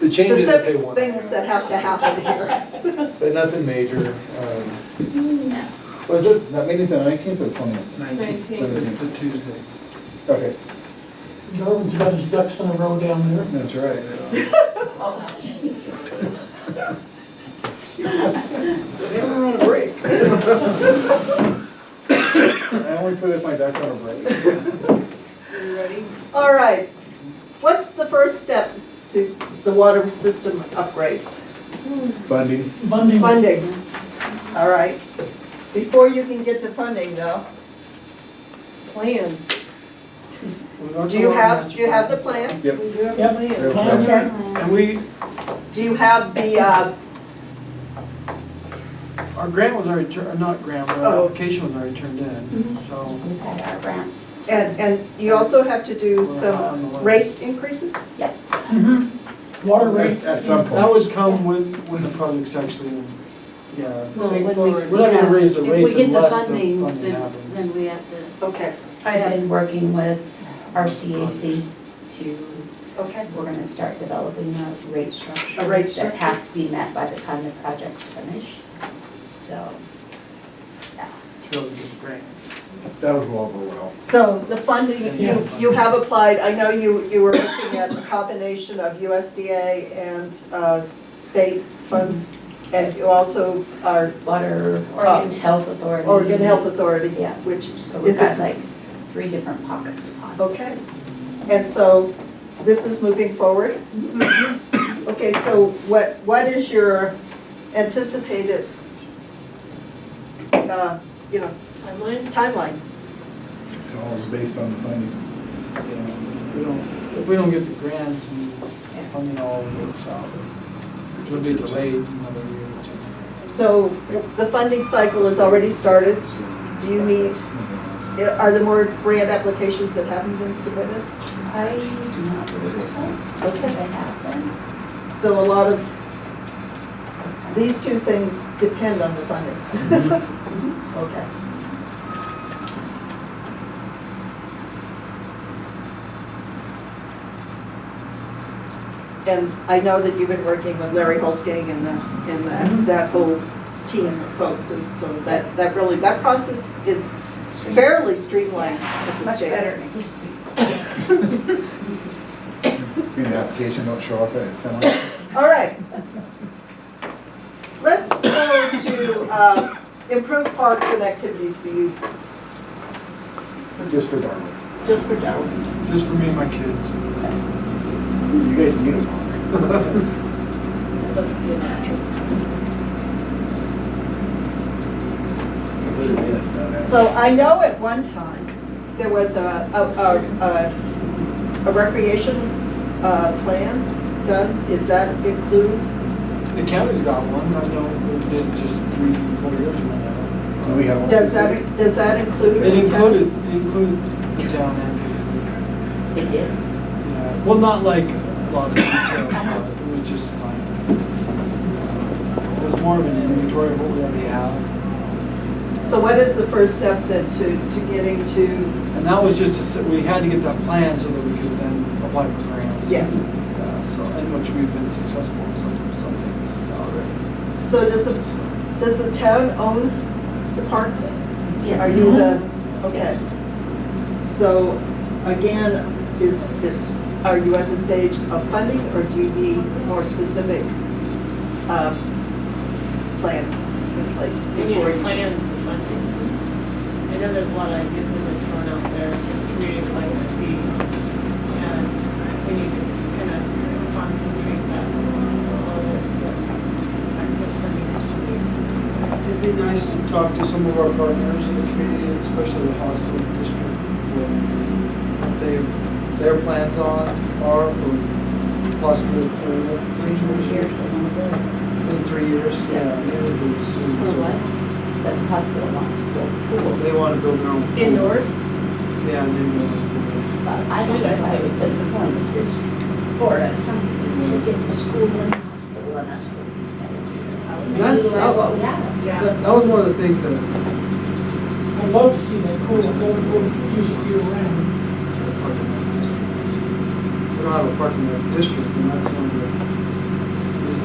The changes that they specific want. things that have to happen here. But nothing major. um, Was it, that meeting's the nineteenth or twentieth? It's the Tuesday. Okay, Darwin's got his ducks in a row down there. that's right. They were on a break. I only put if my ducks on a break. All right, what's the first step to the water system upgrades? Funding. Funding, Funding, all right. Before you can get to funding though, plan. Do you have, do you have the plan? Yep. yep, plan Okay. there. And we, Do you have the, uh, our grant was already, tur- not grant, Oh. but Mm-hmm. our application was already turned in, so. We've had our grants. and, and you also have to do we're on the some list. rate increases? Water rate, At at some That point. would come when, when the project's actually, yeah. Well, when we- We're not gonna raise the If we rates unless the get the funding funding, then, happens. then we have to. Okay, I have been working with RCAC to, okay, we're gonna start developing a rate structure. A rate That has to be met by the time the project's finished, so. It's really good grants. That'll go over well. so the funding, Yeah. you, you have applied, I know you, you were looking at a combination of USDA and, uh, state funds, and you also are Water, Oh. Oregon Health Authority. Oregon Health Authority, Yeah. which, So we've Is it- got like three different pockets possible. okay. And so this is moving forward? Okay, so what, what is your anticipated, uh, you know? Timeline? Timeline. It's all is based on the funding. Yeah, If we don't, if we don't get the grants and funding all works out, it'll be delayed another year or two. So the funding cycle has already started. Do you need, are there more grant applications that haven't been submitted? I do not believe so, but Okay, I have them. so a lot of, That's fine. these two things depend on the funding. mm-hmm. Okay. And I know that you've been working with Larry Holzgang and the, and that, that whole team of folks, and so that, that really, that process is Stream. fairly streamlined. It's Mrs. much Jacobs. better than it used to be. Being the application don't show up at a seminar. All right. Let's go to uh, improve parks and activities for youth, Just for Darwin. just for Darwin. Just for me and my kids. You guys need a park. I'd love to see a natural. So I know at one time, there was a, a, a- a, a recreation uh, plan done. Does that include? The county's got one, I know we did just three, four years ago now. Do we have one? Does that, does that include? It included, it included the town and Paisley. It did. Yeah, well, not like a lot of detail, about it It was just like, it was more of an inventory of what we already have. So what is the first step then to, to getting to, And that was just to, s- we had to get that plan so that we could then apply for grants. yes? Yeah, so, in which we've been successful in some, some things already. So does the, does the town own the parks? Yes. Are you the, okay. Yes. So again, is, it- are you at the stage of funding or do you need more specific um, plans in place? We need before a you- plan for funding. I know there's a lot of ideas that are thrown out there, the community would like to see, and we need to kind of concentrate that on all this, but access funding is really It'd be nice to talk to some of our partners in the community, especially the hospital district, what they, their plans on are for possibly approval. Three years ago. In three years, yeah, and they would do it soon. For so what? The hospital wants to build a pool. They want to build their own. pool. Indoors? Yeah, and then. But I don't know why we put it on the district or a something to get the school and hospital and a school. That- Utilize what we have. Yeah. That, that was one of the things that, I'd love to see that pool, I'd love to use it year round. We don't have a parking lot district, and that's one